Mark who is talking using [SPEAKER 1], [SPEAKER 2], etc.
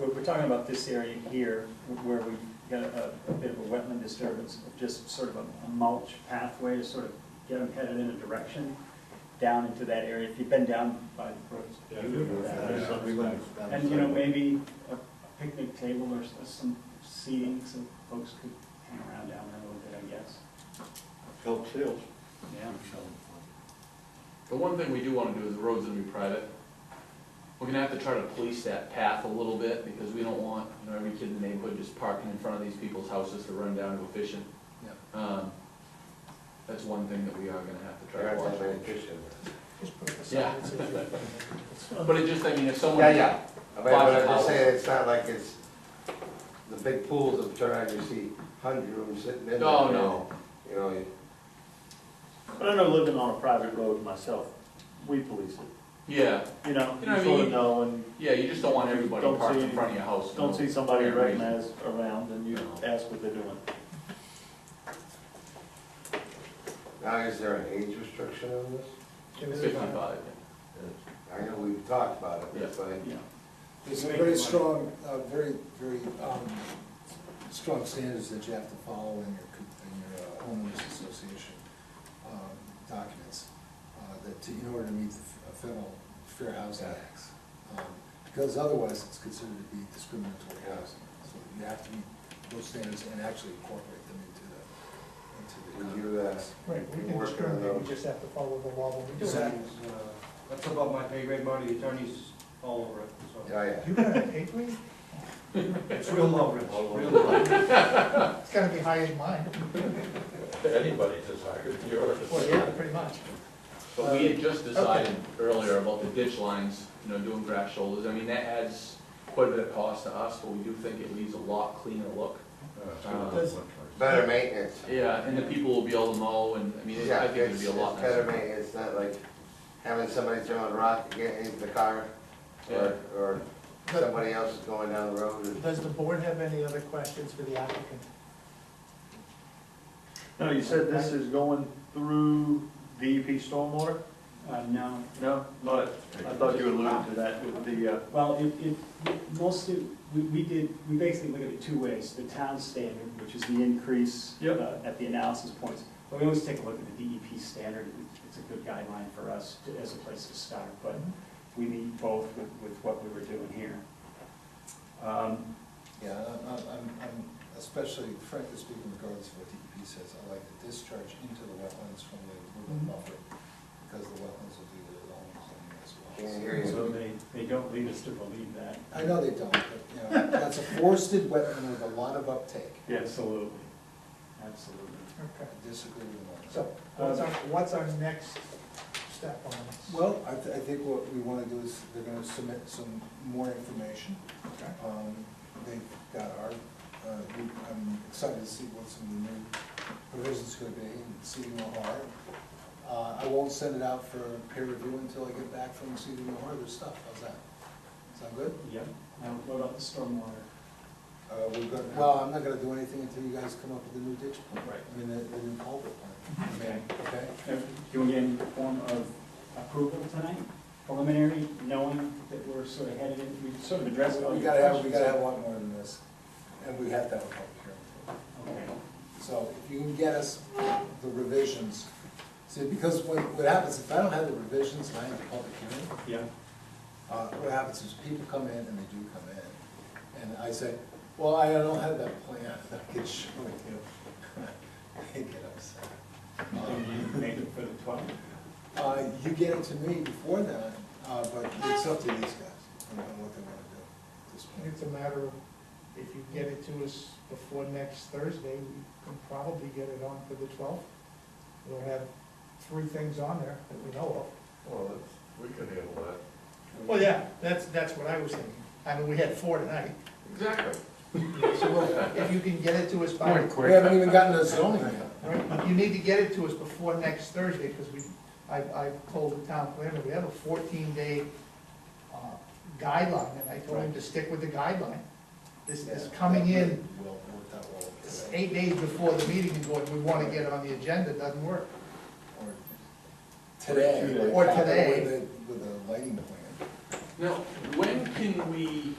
[SPEAKER 1] we're talking about this area here, where we got a, a bit of a wetland disturbance, just sort of a a mulch pathway to sort of get them headed in a direction down into that area. If you've been down by the brooks,
[SPEAKER 2] Yeah,
[SPEAKER 1] you would know that. There's a- And, you know, maybe a a picnic table or s- uh, some seating, so folks could hang around down there a little bit, I guess.
[SPEAKER 2] Help sales.
[SPEAKER 1] Yeah.
[SPEAKER 3] The one thing we do wanna do is the road's gonna be private. We're gonna have to try to police that path a little bit, because we don't want, you know, every kid in the neighborhood just parking in front of these people's houses to run down to a fishing. Um, that's one thing that we are gonna have to try to watch. Yeah. But it just, I mean, if someone.
[SPEAKER 4] Yeah, yeah, but but
[SPEAKER 3] Lots
[SPEAKER 4] I'm
[SPEAKER 3] of
[SPEAKER 4] just saying,
[SPEAKER 3] houses.
[SPEAKER 4] it's not like it's the big pools of turn on, you see hundred of them sitting in there.
[SPEAKER 3] No, no.
[SPEAKER 4] You know, you-
[SPEAKER 5] But I know living on a private road myself, we police it,
[SPEAKER 3] Yeah,
[SPEAKER 5] you know,
[SPEAKER 3] You know what I
[SPEAKER 5] you sort
[SPEAKER 3] mean?
[SPEAKER 5] of know and
[SPEAKER 3] yeah, you just don't want everybody
[SPEAKER 5] Don't
[SPEAKER 3] parked
[SPEAKER 5] see
[SPEAKER 3] in front of your house.
[SPEAKER 5] don't see somebody
[SPEAKER 3] Yeah, right.
[SPEAKER 5] recognized around and you ask what they're doing.
[SPEAKER 4] now is there an age restriction on this?
[SPEAKER 3] Fifty-five,
[SPEAKER 4] I know we've talked about it, but
[SPEAKER 1] Yeah.
[SPEAKER 6] There's very strong, uh, very, very um, strong standards that you have to follow in your, co- in your uh, homeowners association um, documents, uh, that, to- in order to meet the f- federal Fair Housing Act. Um, Because otherwise, it's considered to be discriminatory housing. So you have to meet those standards and actually incorporate them into the, into the.
[SPEAKER 4] we do that.
[SPEAKER 7] Right, we can
[SPEAKER 4] Work on
[SPEAKER 7] discriminate, we
[SPEAKER 4] those.
[SPEAKER 7] just have to follow the law when we do that.
[SPEAKER 2] uh, That's above my pay grade money, attorneys all over it, so.
[SPEAKER 4] oh, Yeah, yeah.
[SPEAKER 7] You got an eight grade?
[SPEAKER 2] It's real low, Rich, real low.
[SPEAKER 7] It's gotta be higher than mine.
[SPEAKER 8] Anybody's as high as yours.
[SPEAKER 7] Well, yeah, pretty much.
[SPEAKER 3] But we had just decided earlier about the ditch lines, you know, doing grass shoulders, I mean, that adds quite a bit of cost to us, but we do think it leaves a lot cleaner look.
[SPEAKER 5] Uh,
[SPEAKER 3] Uh,
[SPEAKER 4] Better maintenance.
[SPEAKER 3] Yeah, and the people will be able to mow, and, I mean, it- I think it'd be a
[SPEAKER 4] it's-
[SPEAKER 3] lot
[SPEAKER 4] It's better
[SPEAKER 3] nicer.
[SPEAKER 4] maintenance, it's not like having somebody throwing a rock to get into the car, or, or somebody else is going down the road. and-
[SPEAKER 7] Does the board have any other questions for the applicant?
[SPEAKER 5] No, you said this is going through DEP stormwater?
[SPEAKER 1] Uh, no,
[SPEAKER 5] No, not, I thought you alluded to that with the, uh,
[SPEAKER 1] Well, it, it, mostly, we, we did, we basically look at it two ways, the town standard, which is the increase
[SPEAKER 5] Yep.
[SPEAKER 1] uh, at the analysis points, but we always take a look at the DEP standard, it's a good guideline for us to- as a place to start, but we need both with, with what we were doing here. Um,
[SPEAKER 6] Yeah, I'm- I'm, I'm, I'm especially, frankly speaking, regardless of what DEP says, I like the discharge into the wetlands from the
[SPEAKER 1] Mhm.
[SPEAKER 6] movement buffer, because the wetlands will do their own cleaning as well.
[SPEAKER 4] Can't hear you.
[SPEAKER 1] So they, they don't lead us to believe that.
[SPEAKER 6] I know they don't, but, you know, that's a forested wetland with a lot of uptake,
[SPEAKER 1] Absolutely. Absolutely.
[SPEAKER 6] I
[SPEAKER 7] Okay.
[SPEAKER 6] disagree with them.
[SPEAKER 7] So what's our, what's our next step on this?
[SPEAKER 6] Well, I, th- I think what we wanna do is, they're gonna submit some more information.
[SPEAKER 7] Okay.
[SPEAKER 6] Um, they've got our, uh, we- I'm excited to see what some of the new provisions could be in CDMOR. Uh, I won't send it out for peer review until I get back from CDMOR, their stuff, how's that? Sound good?
[SPEAKER 1] Yep. Now, what about the stormwater?
[SPEAKER 6] Uh, we've got, well, I'm not gonna do anything until you guys come up with a new ditch plan.
[SPEAKER 1] Right.
[SPEAKER 6] I mean, the, the new culvert plan. I mean, Okay?
[SPEAKER 1] Uh, Do we get any form of approval tonight, preliminary, knowing that we're sort of headed in, we sort of addressed all
[SPEAKER 6] We
[SPEAKER 1] your
[SPEAKER 6] gotta have,
[SPEAKER 1] questions?
[SPEAKER 6] we gotta have a lot more than this, and we have to have a public hearing.
[SPEAKER 1] Okay,
[SPEAKER 6] So if you can get us the revisions, see, because what, what happens, if I don't have the revisions and I have a public hearing,
[SPEAKER 1] yeah,
[SPEAKER 6] uh, what happens is people come in and they do come in, and I say, well, I don't have that plan, that I can show you. They get upset.
[SPEAKER 1] Maybe
[SPEAKER 6] Um,
[SPEAKER 1] you made it for the twelfth.
[SPEAKER 6] Uh, you get it to me before then, uh, but it's up to these guys on on what they wanna do at this point.
[SPEAKER 7] It's a matter of, if you get it to us before next Thursday, we can probably get it on for the twelfth. We'll have three things on there that we know
[SPEAKER 8] Well, that's, we can handle that.
[SPEAKER 7] of. Well, yeah, that's, that's what I was thinking. I mean, we had four tonight.
[SPEAKER 3] Exactly.
[SPEAKER 7] So we'll- if you can get it to us by,
[SPEAKER 6] We haven't even gotten to zoning yet.
[SPEAKER 7] right, you need to get it to us before next Thursday, because we, I, I told the town planner, we have a fourteen day uh, guideline, and I told him to stick with the guideline. This is coming in
[SPEAKER 6] Will, work that well
[SPEAKER 7] It's
[SPEAKER 6] today.
[SPEAKER 7] eight days before the meeting and going, we want to get it on the agenda, doesn't work.
[SPEAKER 6] Or Today.
[SPEAKER 7] Or today.
[SPEAKER 6] With a- With a lighting plan.
[SPEAKER 3] Now, when can we